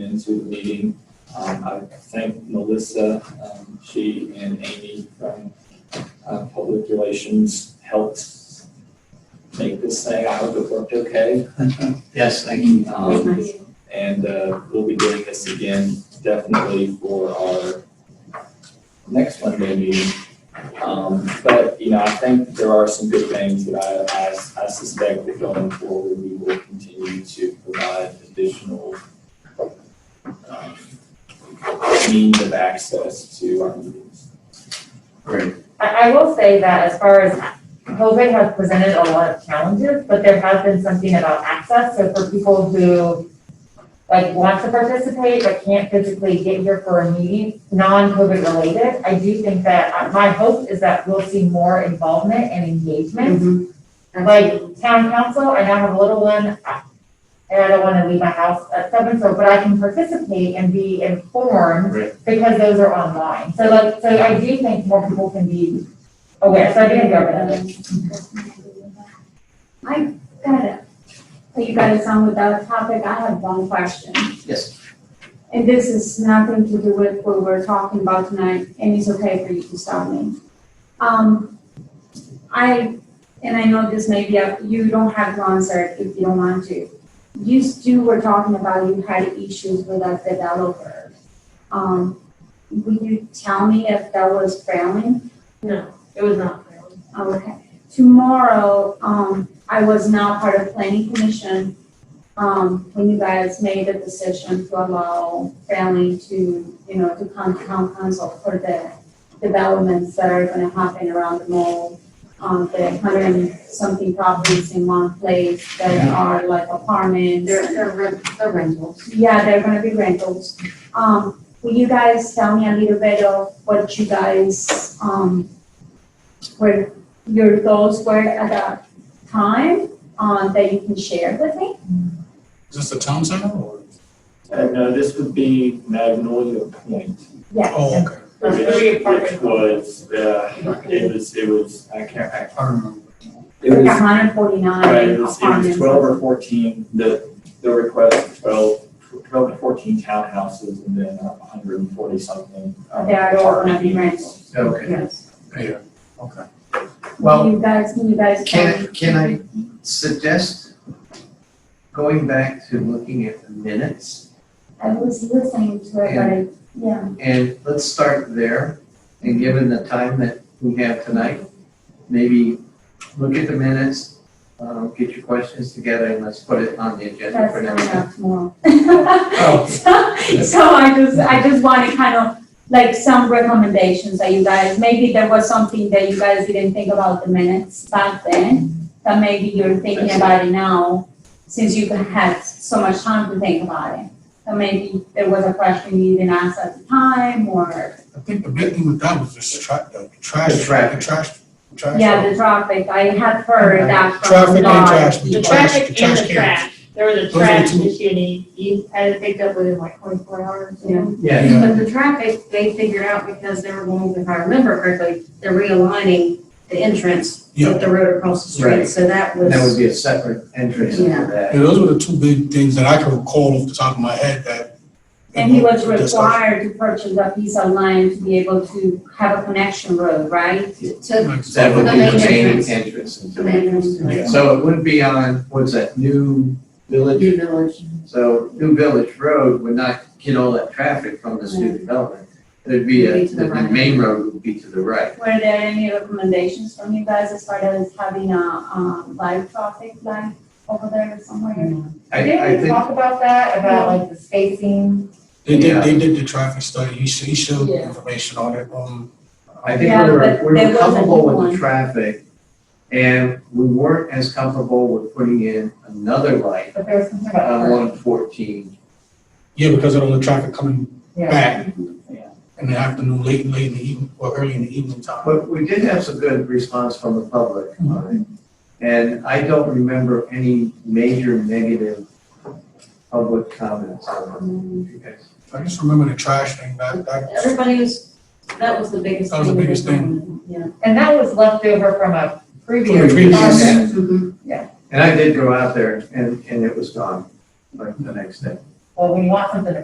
into the meeting. Um, I thank Melissa, um, she and Amy from, uh, Public Relations helped make this thing. I hope it worked okay. Yes, thank you. Um, and uh, we'll be doing this again definitely for our next Monday meeting. Um, But, you know, I think there are some good things that I, I- I suspect that going forward, we will continue to provide additional um, means of access to our meetings. Great. I, I will say that as far as COVID has presented a lot of challenges, but there has been something about access. So for people who like want to participate but can't physically get here for a meeting, non-COVID related, I do think that, uh, my hope is that we'll see more involvement and engagement. Like town council, I now have a little one, uh, and I don't wanna leave my house at seven, so, but I can participate and be informed Right. because those are online. So like, so I do think more people can be aware, so I didn't go with it. I got it. So you got us on with that topic. I have one question. Yes. And this is nothing to do with what we're talking about tonight, and it's okay for you to stop me. Um, I, and I know this may be, up you don't have to answer it if you don't want to. You two were talking about you had issues with that developer. Um, would you tell me if that was failing? No, it was not my own. Okay, tomorrow, um, I was now part of planning commission, um, when you guys made the decision to allow family to, you know, to come to town council for the developments that are gonna happen around the mall, um, the hundred and something properties in one place that are like apartments. They're, they're rent, they're rentals. Yeah, they're gonna be rentals. Um, will you guys tell me a little bit of what you guys, um, where your goals were at that time, um, that you can share with me? Is this the town center or? And uh, this would be Magnolia Point, Yes. Oh, okay. Those which three which apartment was, uh, it was, it was, I can't, I, I remember. it Like was a hundred and Right, it forty-nine was, it was apartments. twelve or fourteen, the, the request, was twelve, twelve to fourteen townhouses and then a hundred and forty something. um, They are all gonna be apartments. Okay, Yes. Yeah, okay. well, You guys, can you guys? can, can I suggest going back to looking at the minutes? I was listening to it, but I, yeah, And let's start there, and given the time that we have tonight, maybe look at the minutes, um, get your questions together, and let's put it on the agenda that's uh, for coming next time. up tomorrow. Oh. So, so I just, I just wanted kind of like some recommendations that you guys, maybe there was something that you guys didn't think about the minutes back then, that maybe you're thinking about it now, since you had so much time to think about it. That maybe there was a question you didn't ask at the time, or, I think the big thing with that was this tra- uh, the trash. The traffic. The trash, trash. yeah, the traffic, I had heard that Traffic from and Laura. trash. but The traffic and the cans. trash, there was a Those are the trash two- issue and he, he had it picked up within like twenty-four hours. Yeah. Yeah, But Yeah, the traffic, they figured out because they were going, if I remember correctly, they're realigning the entrance Yeah. with the road across the Right. street, so that was. that would be a separate entrance into Yeah. that. Yeah, those were the two big things that I can recall off the top of my head that. And he was Discussed. required to purchase a piece of land to be able to have a connection road, right? To That would Exactly. be the The main main entrance. entrance into the it. entrance to the So it would be on, what's that, New Village? new village. So New Village Road would not get all that traffic from this new development. It'd be, a- It'd be to the the, the right. main road would be to the right. Were there any recommendations from you guys as far as having a, um, live traffic light over there somewhere? Mm. I, I Didn't we think, talk about that, about like the spacing? They Yeah. did, they did the traffic study, he sh- he showed Yeah. information on it, um, I think Yeah, we were, but we there were wasn't comfortable with one. the traffic. And we weren't as comfortable with putting in another light But there was something on about, one fourteen. yeah, because of all the traffic coming yeah. back. Yeah. In the afternoon, late, late in the evening, or early in the evening time. But we did have some good response from the public on it. And I don't remember any major negative public comments on it. You guys I just remember the trash thing, that, that, Everybody was, that was the biggest That thing. was the biggest thing. Yeah. And that was left over from a From previous. the previous- department. Mm-hmm. And I did go out there and, and it was gone, like the next day. Well, when you want something to